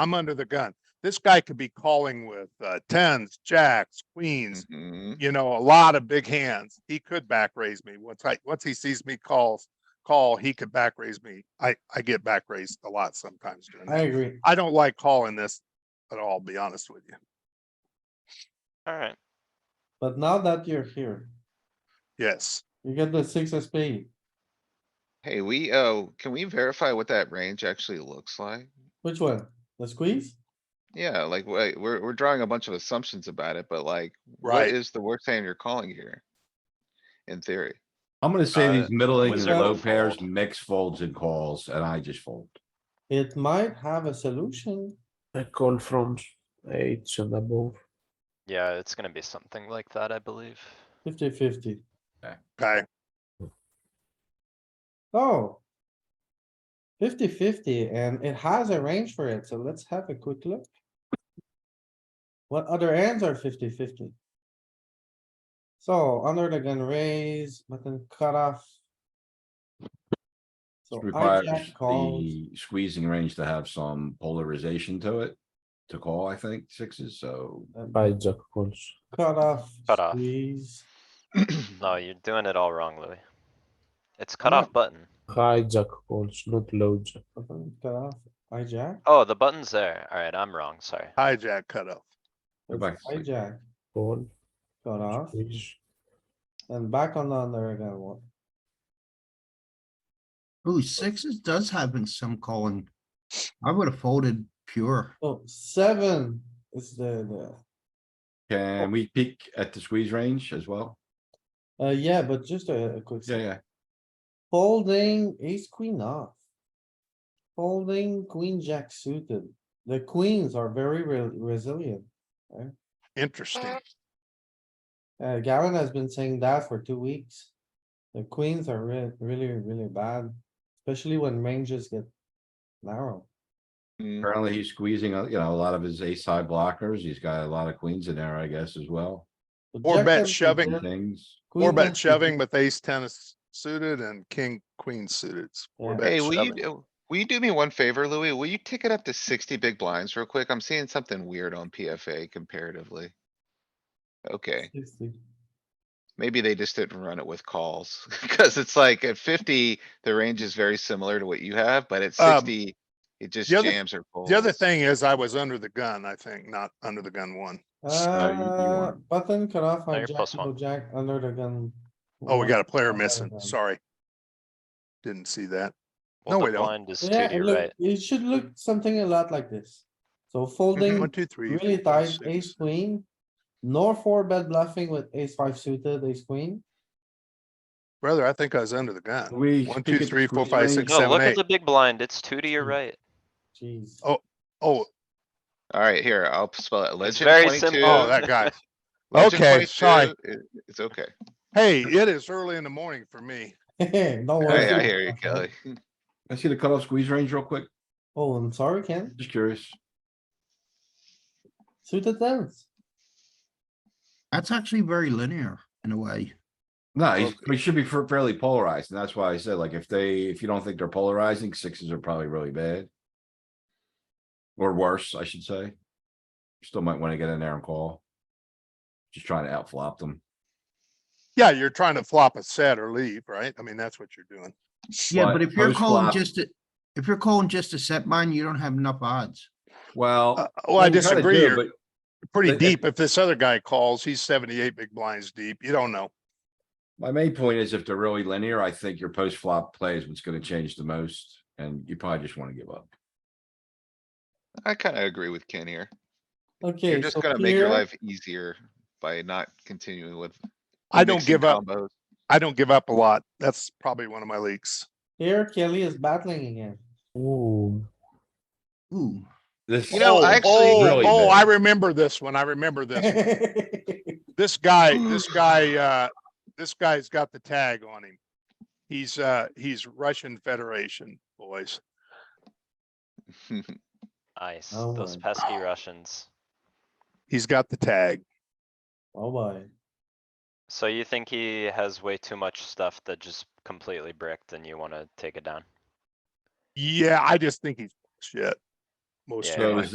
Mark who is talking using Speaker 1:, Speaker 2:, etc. Speaker 1: I'm under the gun. This guy could be calling with uh, tens, jacks, queens,
Speaker 2: Mhm.
Speaker 1: you know, a lot of big hands. He could back raise me once I, once he sees me call, call, he could back raise me. I, I get back raised a lot sometimes during
Speaker 3: I
Speaker 1: that.
Speaker 3: agree.
Speaker 1: I don't like calling this at all, be honest with you.
Speaker 4: Alright,
Speaker 3: But now that you're here,
Speaker 1: Yes.
Speaker 3: you get the six of spade.
Speaker 2: Hey, we, oh, can we verify what that range actually looks like?
Speaker 3: Which one? The squeeze?
Speaker 2: Yeah, like, wait, we're, we're drawing a bunch of assumptions about it, but like, what
Speaker 1: Right.
Speaker 2: is the worst hand you're calling here? In theory,
Speaker 5: I'm gonna say
Speaker 6: Uh,
Speaker 5: these middling and
Speaker 6: wizard
Speaker 5: low
Speaker 6: will
Speaker 5: pairs
Speaker 6: fold.
Speaker 5: mix folds and calls, and I just fold.
Speaker 3: It might have a solution.
Speaker 7: I call from eight and above.
Speaker 4: yeah, it's gonna be something like that, I believe.
Speaker 3: 50-50.
Speaker 1: Okay.
Speaker 3: Oh. 50-50, and it has a range for it, so let's have a quick look. What other hands are 50-50? So under the gun raise, button cutoff. So
Speaker 5: This
Speaker 3: I
Speaker 5: Requires
Speaker 3: jack calls,
Speaker 5: the squeezing range to have some polarization to it. To call, I think, sixes, so
Speaker 7: Hijack calls.
Speaker 3: cutoff,
Speaker 4: Cutoff.
Speaker 3: squeeze,
Speaker 4: No,
Speaker 1: Mm-hmm.
Speaker 4: you're doing it all wrong, Louis. It's
Speaker 3: I'm
Speaker 4: cut off button.
Speaker 7: Hijack calls, not low jack.
Speaker 3: button cutoff, hijack.
Speaker 4: Oh, the button's there. Alright, I'm wrong, sorry.
Speaker 1: Hijack cutoff.
Speaker 5: Go back to sleep.
Speaker 3: Hijack,
Speaker 7: Call,
Speaker 3: cutoff,
Speaker 7: squeeze.
Speaker 3: and back on the under again one.
Speaker 8: Ooh, sixes does happen some calling. I would have folded pure.
Speaker 3: Oh, seven is the,
Speaker 5: can we peek at the squeeze range as well?
Speaker 3: the, uh, yeah, but just a a quick.
Speaker 5: Yeah, yeah.
Speaker 3: Folding ace queen off. Folding queen jack suited. The queens are very re- resilient.
Speaker 1: Interesting.
Speaker 3: Uh, Gavin has been saying that for two weeks. The queens are re- really, really bad, especially when ranges get narrow.
Speaker 2: Mm,
Speaker 5: Apparently, he's squeezing, uh, you know, a lot of his ace high blockers. He's got a lot of queens in there, I guess, as well.
Speaker 3: But
Speaker 1: Or
Speaker 3: jack
Speaker 1: bet
Speaker 3: ten suited,
Speaker 1: shoving.
Speaker 5: and Things.
Speaker 3: queen
Speaker 1: Four
Speaker 3: jack
Speaker 1: bet
Speaker 3: suited.
Speaker 1: shoving with ace ten is suited and king, queen suited. It's four
Speaker 3: Yeah.
Speaker 1: bet
Speaker 2: hey, will you,
Speaker 1: shoving.
Speaker 2: do- will you do me one favor, Louis? Will you tick it up to sixty big blinds real quick? I'm seeing something weird on PFA comparatively. Okay,
Speaker 3: 60.
Speaker 2: maybe they just didn't run it with calls, cuz it's like at fifty, the range is very similar to what you have, but at
Speaker 1: Um,
Speaker 2: sixty, it just
Speaker 1: the other-
Speaker 2: jams or folds.
Speaker 1: The other thing is I was under the gun, I think, not under the gun one.
Speaker 5: No, you- you
Speaker 3: Uh,
Speaker 5: want-
Speaker 3: button cut off
Speaker 4: No,
Speaker 3: on
Speaker 4: you're
Speaker 3: jack,
Speaker 4: plus one.
Speaker 3: double jack, under the gun.
Speaker 1: Oh, we got a player
Speaker 3: Under the
Speaker 1: missing.
Speaker 3: gun.
Speaker 1: Sorry. Didn't see that.
Speaker 4: Well,
Speaker 1: No,
Speaker 4: the
Speaker 1: we don't.
Speaker 4: blind is to
Speaker 3: Yeah, it
Speaker 4: the right.
Speaker 3: look, it should look something a lot like this. So folding
Speaker 1: One, two, three.
Speaker 3: really
Speaker 1: four, five,
Speaker 3: tight,
Speaker 1: six.
Speaker 3: ace queen. No four bet bluffing with ace five suited, ace queen.
Speaker 1: Brother, I think I was under the gun.
Speaker 5: We.
Speaker 1: One,
Speaker 5: peek
Speaker 1: two,
Speaker 5: at the
Speaker 1: three, four,
Speaker 5: squeeze
Speaker 1: five,
Speaker 5: range?
Speaker 1: six,
Speaker 4: No,
Speaker 1: seven,
Speaker 4: look at
Speaker 1: eight. Mm-hmm.
Speaker 4: the big blind, it's two to your right.
Speaker 3: Jeez.
Speaker 1: Oh, Oh,
Speaker 2: Alright, here, I'll spell it.
Speaker 4: It's
Speaker 2: Legend
Speaker 4: very
Speaker 2: 22,
Speaker 4: simple.
Speaker 1: oh, that guy.
Speaker 2: Legend
Speaker 1: Okay, sorry.
Speaker 2: 22, it- It's okay.
Speaker 1: Hey, it is early in the morning for me.
Speaker 3: Don't worry.
Speaker 2: Hey, I hear you, Kelly.
Speaker 5: I see the cutoff squeeze range real quick.
Speaker 3: Oh, I'm sorry, Ken.
Speaker 5: Just curious.
Speaker 3: Suited tens.
Speaker 8: That's actually very linear in a way.
Speaker 5: No, he's, he should be fa- fairly polarized, and that's why I said, like, if they, if you don't think they're polarizing, sixes are probably really bad. Or worse, I should say. Still might wanna get in there and call. Just trying to outflop them.
Speaker 1: Yeah, you're trying to flop a set or leave, right? I mean, that's what you're doing.
Speaker 8: Yeah,
Speaker 5: But
Speaker 8: but if you're calling
Speaker 5: post-flop-
Speaker 8: just, a- if you're calling just a set mine, you don't have enough odds.
Speaker 1: Uh,
Speaker 5: Well.
Speaker 1: well, I
Speaker 5: you kinda
Speaker 1: disagree.
Speaker 5: do,
Speaker 1: You're
Speaker 5: but
Speaker 1: pretty
Speaker 5: but if-
Speaker 1: deep. If this other guy calls, he's seventy-eight big blinds deep. You don't know.
Speaker 5: My main point is if they're really linear, I think your post flop play is what's gonna change the most, and you probably just wanna give up.
Speaker 2: I kinda agree with Ken here.
Speaker 3: Okay.
Speaker 2: You're just
Speaker 3: so
Speaker 2: gonna make your
Speaker 3: here-
Speaker 2: life easier by not continuing with.
Speaker 1: I don't
Speaker 2: mixing
Speaker 1: give up.
Speaker 2: combos.
Speaker 1: I don't give up a lot. That's probably one of my leaks.
Speaker 3: Here Kelly is battling again.
Speaker 7: Ooh,
Speaker 8: Ooh,
Speaker 5: This.
Speaker 2: You know,
Speaker 1: Oh,
Speaker 2: I actually-
Speaker 1: oh,
Speaker 5: Really
Speaker 1: Oh, I
Speaker 5: bad.
Speaker 1: remember this one. I remember this. one.
Speaker 3: It's
Speaker 1: This guy, this guy, uh, this guy's got the tag on him. He's, uh, he's Russian Federation, boys.
Speaker 4: Nice,
Speaker 3: Oh
Speaker 4: those
Speaker 3: my-
Speaker 4: pesky Russians.
Speaker 1: He's got the tag.
Speaker 3: Oh boy.
Speaker 4: So you think he has way too much stuff that just completely bricked and you wanna take it down?
Speaker 1: Yeah, I just think he's shit. Most of
Speaker 4: Yeah.
Speaker 1: the time.